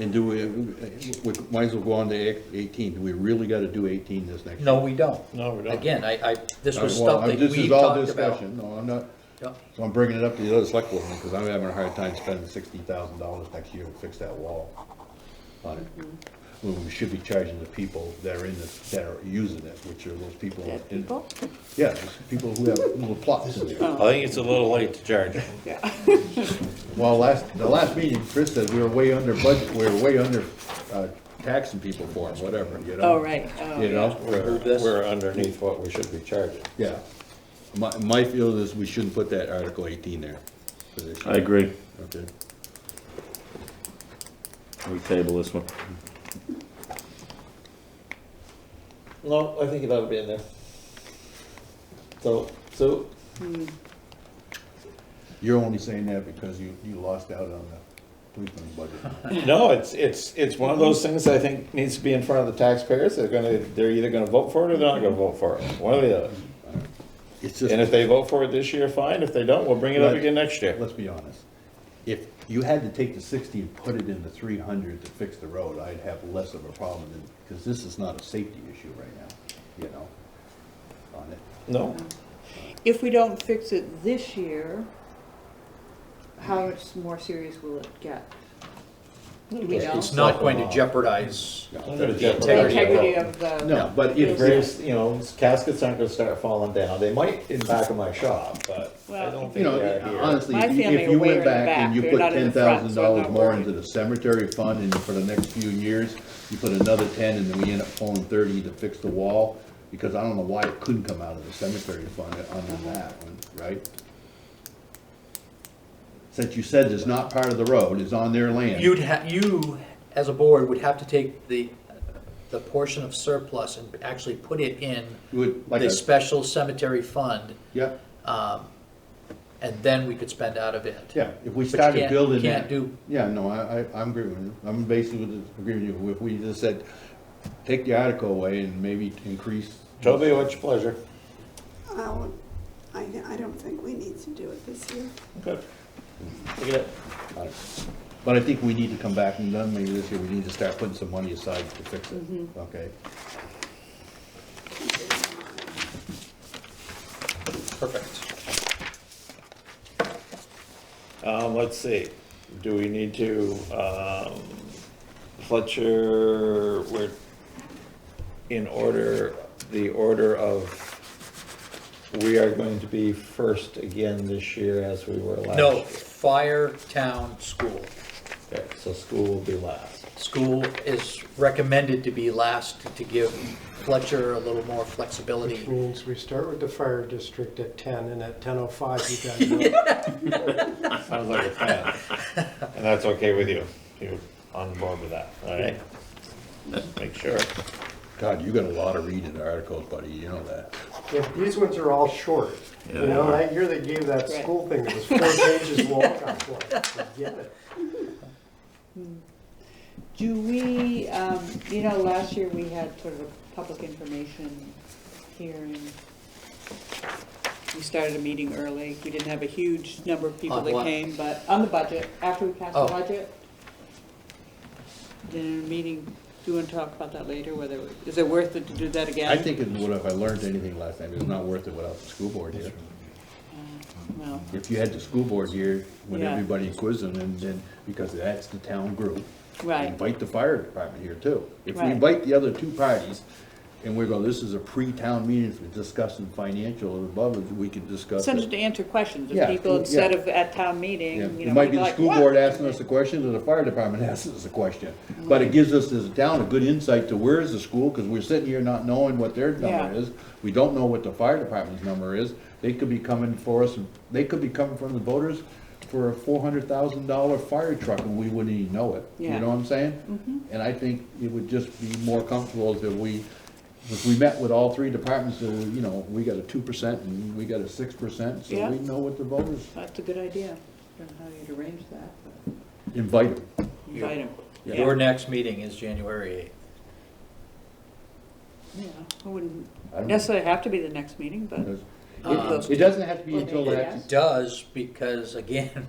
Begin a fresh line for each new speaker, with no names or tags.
And do we, we might as well go on to eighteen, do we really gotta do eighteen this next?
No, we don't.
No, we don't.
Again, I, I, this was
Well,
stuff that
this
we
is all
talked about.
discussion. No, I'm not,
Yep.
so I'm bringing it up to the other select board, because I'm having a hard time spending sixty thousand dollars next year to fix that wall on it.
Mm-hmm.
When we should be charging the people that are in this, that are using it, which are those people.
Yeah,
in-
people? Oh.
Yeah, those people who have little plots in there.
I think it's a little late to charge.
Yeah.
Well, last, the last meeting, Chris said we were way under budget, we were way under, uh, taxing people for them, whatever, you know?
Oh, right. Oh,
You know?
We're, we're underneath what we should be charging.
Yeah. My, my feeling is we shouldn't put that Article eighteen there. for this year.
I agree.
Okay.
We table this one.
No, I think it ought to be in there. So, so,
You're only saying that because you, you lost out on the policeman's budget.
no, it's, it's, it's one of those things I think needs to be in front of the taxpayers. They're gonna, they're either gonna vote for it or they're not gonna vote for it, one or the other.
It's
And if
just,
they vote for it this year, fine. If they don't, we'll bring it up again next year.
let's be honest. If you had to take the sixty and put it in the three hundred to fix the road, I'd have less of a problem than, because this is not a safety issue right now, you know? On it.
No,
If we don't fix it this year, how much more serious will it get? Do we know?
It's not going
uh,
to jeopardize
No.
the
The
integrity of
integrity of the.
No, but
If
if,
there's, you know, caskets aren't gonna start falling down. They might in the back of my shop, but I
Well,
don't
you
think
know, uh,
they're here.
honestly,
My
if you-
family
if
are
you
way in
went
the
back and
back.
you
They're
put
not in
ten
the front,
thousand
so I'm
dollars
not
more
worried.
into the cemetery fund and for the next few years, you put another ten and then we end up pulling thirty to fix the wall, because I don't know why it couldn't come out of the cemetery fund on that one, right? Since you said it's not part of the road, it's on their land.
You'd ha, you, as a board, would have to take the, the portion of surplus and actually put it in
You would, like
the
a-
special cemetery fund,
Yeah,
and then we could spend out of it.
yeah, if we
But you
started
can't-
building that-
can't do-
Yeah, no, I, I, I'm agreeing with you, I'm basically just agreeing with you, if we just said, take the article away and maybe increase.
Toby, what's your pleasure?
I'll- I, I don't think we need to do it this year.
Okay. Look at it.
But I think we need to come back and then maybe this year, we need to start putting some money aside to fix it,
Mm-hmm.
okay?
Perfect.
Um, let's see, do we need to, um, Fletcher, we're in order, the order of, we are going to be first again this year as we were last.
No,
year.
fire, town, school.
Okay, so school will be last.
School is recommended to be last to give Fletcher a little more flexibility.
Which means we start with the fire district at ten, and at ten oh five, you guys know.
Sounds like a plan. And that's okay with you, you're on board with that, all right? Just make sure.
God, you got a lot of reading articles, buddy, you know that.
Yeah, These ones are all short, you know, that year they gave that
Right.
school thing, it was four pages long, I was like, forget it.
Do we, um, you know, last year we had sort of a public information hearing. We started a meeting early. We didn't have a huge number of people
On
that
what?
came, but on the budget, after we passed the
Oh.
budget. Did a meeting, do you want to talk about that later, whether, is it worth it to do that again?
I think it would, if I learned anything last time, it's not worth it without the school board here.
No.
If you had the school board here, when
Yeah.
everybody quizzing and then, because that's the town group.
Right.
Invite the fire department here too. If we
Right.
invite the other two parties and we go, this is a pre-town meeting for discussing financial and above, we can discuss
Send it
it.
to answer questions
Yeah,
of people
yeah.
instead of at town
Yeah,
meeting, you know.
It might
we'd
be the
like,
school
"What?"
board asking us a question, or the fire department asking us a question. But it gives us as a town a good insight to where is the school, because we're sitting here not knowing what their
Yeah.
number is. We don't know what the fire department's number is. They could be coming for us, and they could be coming from the voters for a four hundred thousand dollar fire truck, and we wouldn't even know it. You
Yeah.
know what I'm saying?
Mm-hmm.
And I think it would just be more comfortable if we, if we met with all three departments, so, you know, we got a two percent and we got a six percent, so
Yeah.
we know what the voters
That's a good idea. I don't know how you'd arrange that, but
invite them.
invite 'em. Yeah.
Your next meeting is January
Yeah, it wouldn't
I don't-
necessarily have to be the next meeting, but.
It
Uh,
it doesn't have to be until
Well,
that,
yes.
8th. Does, because again,